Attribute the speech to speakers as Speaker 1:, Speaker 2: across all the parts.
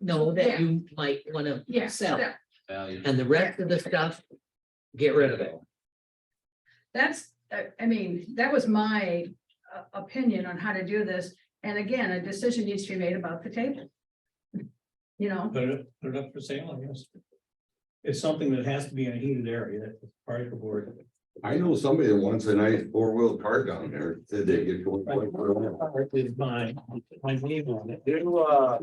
Speaker 1: know
Speaker 2: Yeah.
Speaker 1: that you might wanna
Speaker 2: Yeah,
Speaker 1: sell.
Speaker 2: that-
Speaker 3: value.
Speaker 1: And the rest of the stuff, get rid of it.
Speaker 2: that's, uh, I, I mean, that was my uh, opinion on how to do this. And again, a decision needs to be made about the table. You know,
Speaker 4: Put it, put it up for sale, I guess. It's something that has to be in a heated area, that's part of the board.
Speaker 5: I know somebody that wants a nice four-wheel car down there, did they get going?
Speaker 4: Is my, my name on it.
Speaker 6: You, uh,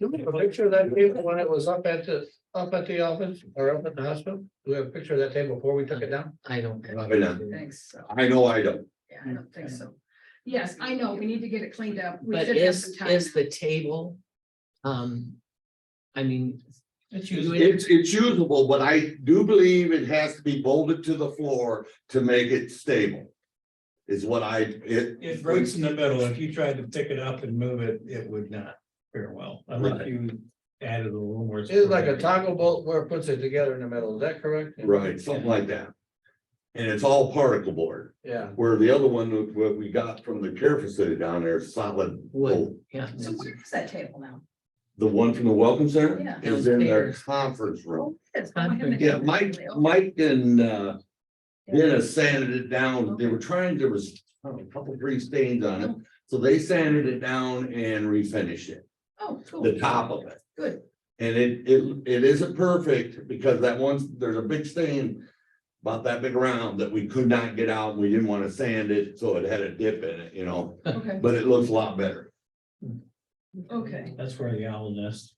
Speaker 6: do we have a picture of that table when it was up at the, up at the office or up at the hospital? Do we have a picture of that table before we took it down?
Speaker 1: I don't.
Speaker 5: Right now.
Speaker 1: Mm-hmm.
Speaker 2: thanks, so,
Speaker 5: I know I don't,
Speaker 2: yeah, I don't think so. Yes, I know, we need to get it cleaned up. We
Speaker 1: But
Speaker 2: should have
Speaker 1: is,
Speaker 2: some time.
Speaker 1: is the table? Um. I mean,
Speaker 4: It's
Speaker 1: you
Speaker 4: usually,
Speaker 1: would-
Speaker 5: it's, it's usable, but I do believe it has to be bolted to the floor to make it stable. Is what I, it.
Speaker 4: it breaks in the middle, if you tried to pick it up and move it, it would not fare well, unless
Speaker 5: Right.
Speaker 4: you added a little more.
Speaker 6: It's like a taco boat where it puts it together in the middle, is that correct?
Speaker 5: Right, something like that. And it's all particle board,
Speaker 6: Yeah,
Speaker 5: where the other one, what we got from the care facility down there, solid.
Speaker 1: wood, yeah.
Speaker 2: So where is that table now?
Speaker 5: The one from the welcome center
Speaker 2: Yeah.
Speaker 5: is in their
Speaker 1: Downstairs.
Speaker 5: conference room.
Speaker 2: Oh, it is. Oh, I haven't-
Speaker 5: Yeah, Mike, Mike and uh Dennis sanded it down. They were trying, there was I don't know, a couple three stains on it. So they sanded it down and refinished it,
Speaker 2: Oh, cool.
Speaker 5: the top of it.
Speaker 2: Good.
Speaker 5: And it it it isn't perfect because that one's, there's a big stain about that big round that we could not get out. We didn't want to sand it, so it had a dip in it, you know,
Speaker 2: Okay,
Speaker 5: but it looks a lot better.
Speaker 2: okay.
Speaker 4: That's where the owl nest.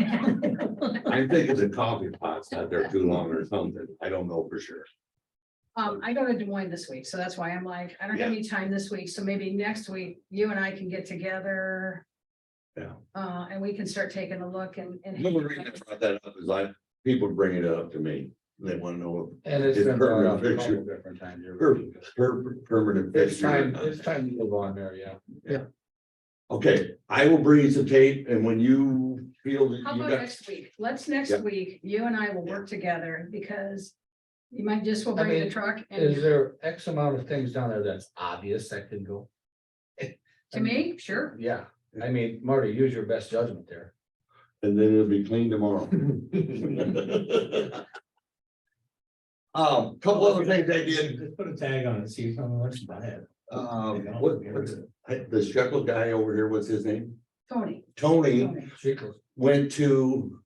Speaker 5: I think it's a coffee pot sat there too long or something. I don't know for sure.
Speaker 2: Um, I go to Des Moines this week, so that's why I'm like, I don't have any time this week, so maybe next week, you and I can get together.
Speaker 5: Yeah.
Speaker 2: Uh, and we can start taking a look and, and.
Speaker 5: The reason I brought that up is I, people bring it up to me, they wanna know
Speaker 6: and it's
Speaker 5: It's
Speaker 6: been brought up a
Speaker 5: permanent
Speaker 6: couple different times.
Speaker 5: if per, per, permanent
Speaker 6: It's
Speaker 5: fixture. or
Speaker 6: time,
Speaker 5: not.
Speaker 6: it's time to move on there, yeah.
Speaker 5: Okay, I will bring you some tape and when you feel that
Speaker 2: How
Speaker 5: you
Speaker 2: about
Speaker 5: got,
Speaker 2: next week? Let's next
Speaker 5: Yeah.
Speaker 2: week, you and I will work together because. You might just will
Speaker 6: I
Speaker 2: bring the
Speaker 6: mean,
Speaker 2: truck
Speaker 6: Is
Speaker 2: and
Speaker 6: there X amount of things down there that's obvious that could go?
Speaker 2: to me, sure.
Speaker 6: Yeah, I mean, Marty, use your best judgment there.
Speaker 5: and then it'll be clean tomorrow. Um, couple other things I did,
Speaker 4: Just Put a tag on it, see if someone wants to buy it.
Speaker 5: um,
Speaker 4: They don't
Speaker 5: what,
Speaker 4: get rid
Speaker 5: what's,
Speaker 4: of it.
Speaker 5: the shekel guy over here, what's his name?
Speaker 2: Tony.
Speaker 5: Tony
Speaker 2: Tony.
Speaker 6: Jekyll.
Speaker 5: went to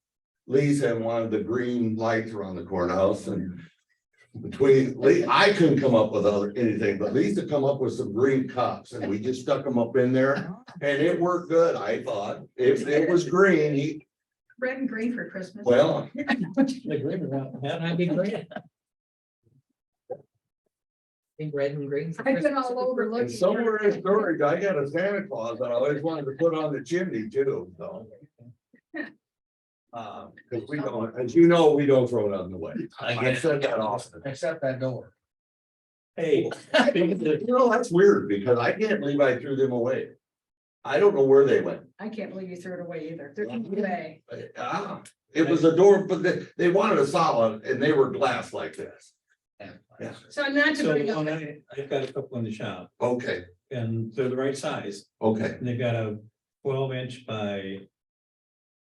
Speaker 5: Lisa and wanted the green lights around the courthouse and between, Lee, I couldn't come up with other, anything, but Lisa come up with some green cups and we just stuck them up in there. And it worked good, I thought. If it was green, he,
Speaker 2: Red and green for Christmas.
Speaker 5: well,
Speaker 4: They agree with that.
Speaker 1: That'd be great. I think red and green.
Speaker 2: I've been all over looking.
Speaker 5: and somewhere in storage, I got a Santa Claus that I always wanted to put on the chimney too, so. Uh, cause we don't, as you know, we don't throw nothing away. I said that often.
Speaker 6: Except that door.
Speaker 4: Hey.
Speaker 5: You know, that's weird because I can't believe I threw them away. I don't know where they went.
Speaker 2: I can't believe you threw it away either. They're giving it away.
Speaker 5: Ah, it was a door, but they, they wanted a solid and they were glass like this. Yeah. uh,
Speaker 2: So not to
Speaker 4: So
Speaker 2: bring up.
Speaker 4: when I, I've got a couple in the shop
Speaker 5: Okay,
Speaker 4: and they're the right size.
Speaker 5: okay.
Speaker 4: And they've got a twelve inch by.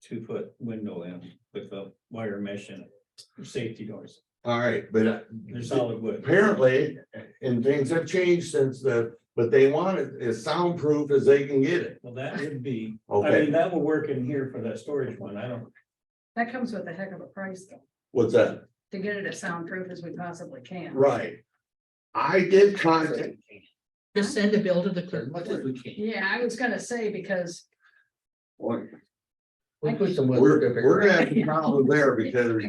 Speaker 4: Two foot window in with a wire mesh in it, for safety doors,
Speaker 5: All right, but uh,
Speaker 4: they're solid wood.
Speaker 5: apparently, and things have changed since the, but they want it as soundproof as they can get it.
Speaker 4: Well, that would be, I mean,
Speaker 5: Okay,
Speaker 4: that will work in here for that storage one, I don't,
Speaker 2: That comes with a heck of a price though,
Speaker 5: what's that?
Speaker 2: to get it as soundproof as we possibly can.
Speaker 5: Right. I did contact,
Speaker 1: Just send a bill to the clerk.
Speaker 2: Yeah, I was gonna say because
Speaker 5: we're,
Speaker 6: We put some.
Speaker 5: we're gonna have a problem there because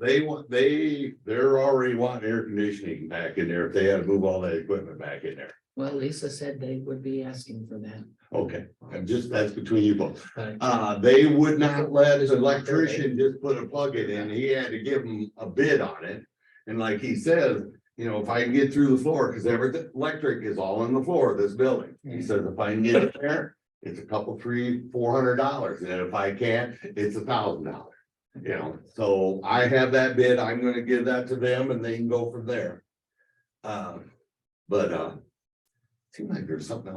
Speaker 5: they want, they, they're already wanting air conditioning back in there. If they had to move all that equipment back in there.
Speaker 1: Well, Lisa said they would be asking for that.
Speaker 5: Okay, I'm just, that's between you both.
Speaker 1: Right.
Speaker 5: Uh, they would not let an electrician just put a plug-in in, he had to give them a bid on it. And like he says, you know, if I can get through the floor, because everything, electric is all in the floor of this building. He says, if I can get it there, it's a couple, three, four hundred dollars, and if I can't, it's a thousand dollars. You know, so I have that bid, I'm gonna give that to them and they can go from there. Um, but, uh, seems like there's something else.